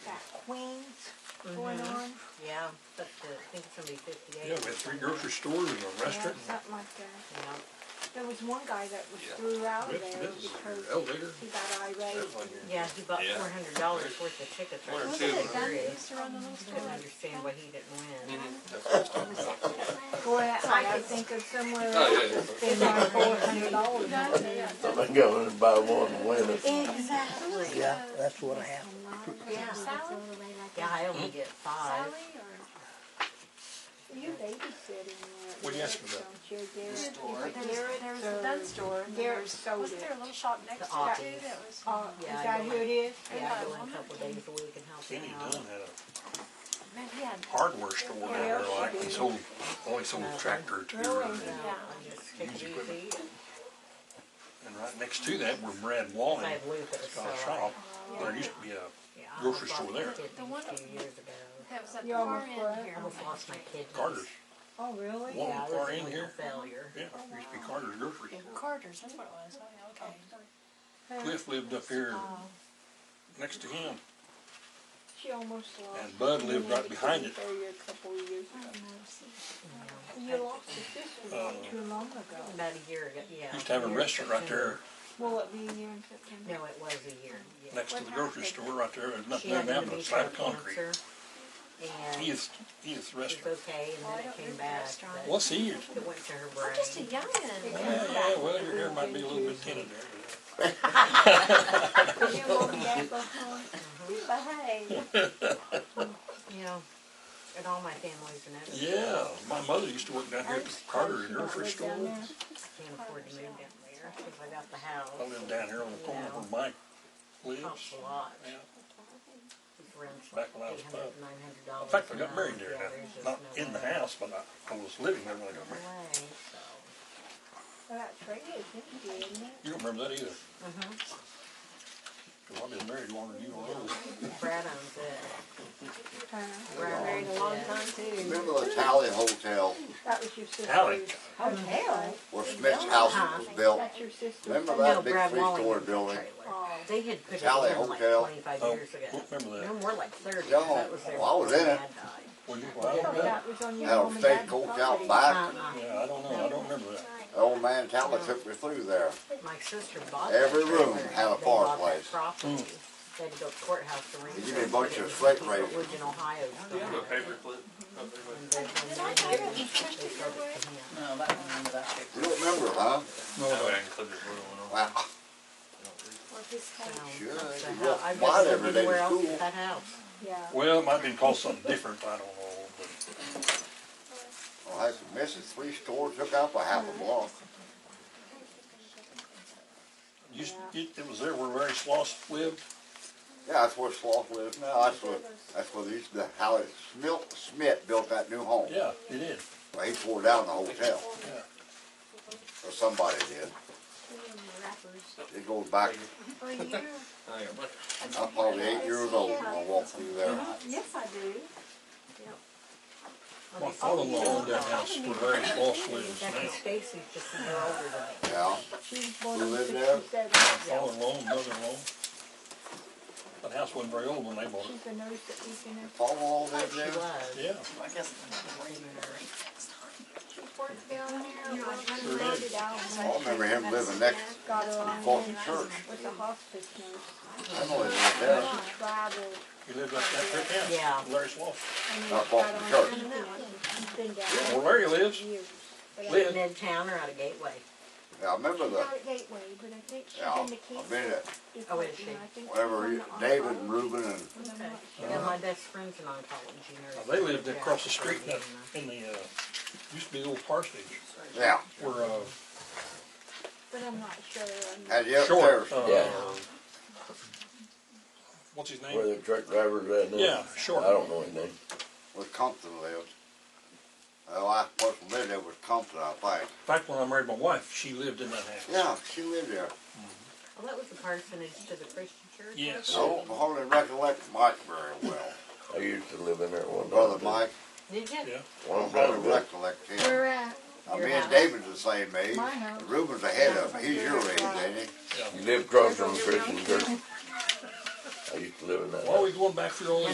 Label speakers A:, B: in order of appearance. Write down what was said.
A: going on.
B: Yeah, it's up to, I think it's gonna be fifty-eight.
C: Yeah, we had three grocery stores and a restaurant.
A: Yeah, Something like that.
B: Yeah.
A: There was one guy that was
C: Yeah.
A: threw out
C: This-
A: there
C: this is
A: because
C: your Elevator.
A: he got irate.
C: That's on your-
B: Yeah, he bought
D: Yeah.
B: four hundred dollars worth of tickets.
D: One or
B: right
D: two.
B: there.
D: Wasn't it
B: Couldn't understand why he didn't win.
A: Boy, I could think of somewhere
D: Oh,
A: else
D: yeah, yeah.
A: to spend my four hundred dollars on.
E: I think I only buy one and win it.
B: Exactly.
F: Yeah, that's what I have.
B: Yeah.
G: Salad?
B: Yeah, I only get five.
G: Salad or?
A: You babysitting there.
C: What are you asking about?
A: Don't you, Garrett?
G: There was a gun store. and there
A: Garrett
G: was-
A: sold
G: Wasn't there a
A: it.
G: little shop next to it
B: Oppie's.
G: too that was?
A: Uh, is
B: Yeah, I
A: that
B: know.
A: who it is?
B: Yeah, I go in a couple days a week and help
C: Kenny
B: him out.
C: Dunn had a
G: Man, he had-
C: hardware store down there, like, he sold, only sold a tractor or two. And
B: No, I just take it easy.
C: and right next to that where Brad Wallen
B: I believe it was so.
C: got a shop, there used to be a
B: Yeah, I
C: grocery
B: almost
C: store
B: lost
C: there.
B: my kidney
G: The one-
B: a few years ago.
G: That was at the
A: You
G: far
A: almost
G: end
A: were.
B: I
G: here.
B: almost lost my kidneys.
C: Carter's,
A: Oh, really?
C: Wallen
B: Yeah, I
C: far
B: was
C: in
B: in a
C: here.
B: failure.
C: Yeah, there used to be Carter's grocery store.
G: Carter's, that's what it was. Oh, yeah, okay.
C: Cliff lived up here
G: Oh.
C: next to him,
A: She almost lost.
C: and Bud lived right behind it.
A: Area a couple of years ago. You lost your sister
C: Uh.
A: not too long ago.
B: About a year ago, yeah.
C: Used to have a
B: year in
C: restaurant right there,
B: September.
A: Will it be a year in September?
B: No, it was a year, yeah.
C: next to the grocery store right there, there's
B: She
C: nothing there
B: had
C: now
B: an
C: but a
B: initial
C: slab of concrete.
B: cancer, And
C: He
B: it
C: is, he is the
B: was
C: restaurant.
B: okay, and then it came back, but
C: What's he?
B: it went to her
G: I'm just a
B: brain.
G: youngin'.
C: Yeah, yeah, well, your hair might be a little bit tinted there. but-
A: Will you look back before? Behave.
B: You know, and all my families and everything.
C: Yeah, my mother used to work down here at the Carter
A: Live
C: grocery
A: down
C: store.
A: there.
B: Can't afford to move down there, cause I got the
C: I
B: house,
C: live down here on the corner where Mike lives.
B: costs a lot.
C: Yeah.
B: It's around
C: Back when I was
B: $800,
C: five.
B: $900
C: In fact, I
B: a
C: got married there,
B: month.
C: now.
B: Yeah, there's just
C: not
B: no
C: in the
B: way.
C: house, but I, I was living there when I got
B: No
C: married.
B: way, so.
A: Well, that's right, it's empty, isn't it?
C: You don't remember that either? Cause I've been married longer than you are.
B: Brad owns it. Brad
G: Married a
B: owns
G: long
B: it.
G: time too.
E: Remember the Tally Hotel
A: That was your sister's.
C: Alley.
A: Hotel?
E: where Smith's house was built?
A: That's your sister's.
E: Remember
B: No,
E: that big
B: Brad Walling
E: three-story
B: owns the
E: building?
B: trailer.
A: Oh,
B: They had put it
E: Tally
B: in like
E: Hotel.
B: twenty-five
C: Oh,
B: years ago.
C: remember
B: No
C: that?
B: more like thirty,
E: Yeah,
B: that was there.
E: well, I was in
B: before
E: it.
B: Dad died.
C: Well, you, well, I
A: so
C: don't know.
A: that was on your
E: Had
A: mom
E: a
A: and
E: state
A: dad's
E: coach out
A: property.
E: back.
B: Uh-uh.
C: Yeah, I don't know, I don't remember that.
E: Old man Tally took me through there.
B: My sister bought that
E: Every
B: trailer.
E: room had a
B: They bought
E: fireplace.
B: that
C: Mm.
B: property. They had to go to courthouse to rent
E: They give
B: it.
E: you a bunch of
B: It was
E: slate
B: people
E: raisins.
B: lived in Ohio.
C: Oh,
B: so
D: Do you have a
B: they-
D: paperclip up there with
B: they-
G: Did I drive it? You pushed
B: they
G: it your
B: sold
G: way?
B: it to him.
H: No, that one, remember that picture.
E: You don't remember,
D: No,
E: huh?
D: I didn't clip it, put it on.
E: Wow.
G: Or if it's
B: um, So,
G: kind of-
E: Sure,
B: that's
E: you
B: the
E: walk
B: hou- I've
E: by
B: never lived
E: it every day to
B: anywhere else
E: school.
B: but that house.
A: Yeah.
C: Well, it might be called something different, I don't know, but.
E: I had some misses, three stores, took out for half a block.
C: You, it, it was there where Larry Sloss lived?
E: Yeah, that's where Sloth lives now. That's where, that's where they used to, how it, Smil- Smith built that new home.
C: Yeah, it did.
E: Well, he tore down the hotel,
C: Yeah.
E: or somebody did. It goes back,
A: For you?
D: I got one.
E: I'm probably eight years old when I walked through there.
A: Yes, I do.
C: My father-in-law owned that house where Larry Sloss lives
B: oh, Jackie
C: now.
B: Stacy's just a year older than me.
E: Yeah,
A: She's born
E: You
A: in
E: live there?
A: sixty-seven.
C: Father-in-law, mother-in-law. That house wasn't very old when they bought
A: She's a nurse at Deaconess.
E: Paul lived
B: She
E: there.
B: was.
C: it. Yeah.
H: I guess the rain
A: Worked down there.
G: You know, I
A: She started out when
E: I remember him living next
A: I got her on
E: Fulton Church.
A: with the hospice nurse.
E: I know he lived there.
A: Traveled.
C: He lived up that brick house.
B: Yeah.
C: Larry Sloss.
A: I mean, got
E: Not Fulton
A: on
E: Church.
A: ambulance. She's been down there
C: Where Larry lives.
A: for years. But I-
C: Live.
B: Lived midtown or out of Gateway.
E: Yeah, I remember
A: She's
E: the,
A: out at Gateway, but I think she's
E: yeah,
A: in the
E: I've been
A: cancer
E: at,
A: department.
B: Oh, is she?
A: I think
E: whenever
A: she's
E: he-
A: on the
E: David
A: oncology.
E: and Reuben and,
B: Yeah, my best friend's an oncology nurse.
C: Oh, They lived across the
B: Yeah.
C: street in the, in the, uh, used to be the old parsonage
E: yeah,
C: where, uh,
A: But I'm not sure. I'm
E: had you up there.
C: Short, uh,
E: Yeah.
C: what's his
E: Where
C: name?
E: the truck drivers at now?
C: Yeah, Short.
E: I don't know his name. Where Compton lived. The last person lived there was Compton, I think.
C: In fact, when I married my wife, she lived in that house.
E: Yeah, she lived there.
B: Well, that was the parsonage to the Christian church.
C: Yes.
E: I don't hardly recollect Mike very well.
I: I used to live in there one time.
E: Brother
I: too.
E: Mike,
B: Did you?
C: Yeah.
E: I
I: One
E: don't
I: time,
E: hardly
I: but
E: recollect him.
A: Where at?
E: Now,
B: Your
E: me and
B: house.
E: David's the same age.
A: My house.
E: Reuben's ahead of me. He's your age, ain't he?
I: you lived across from the Christian church. I used to live in that
C: Why are
I: house.
C: we going back through all these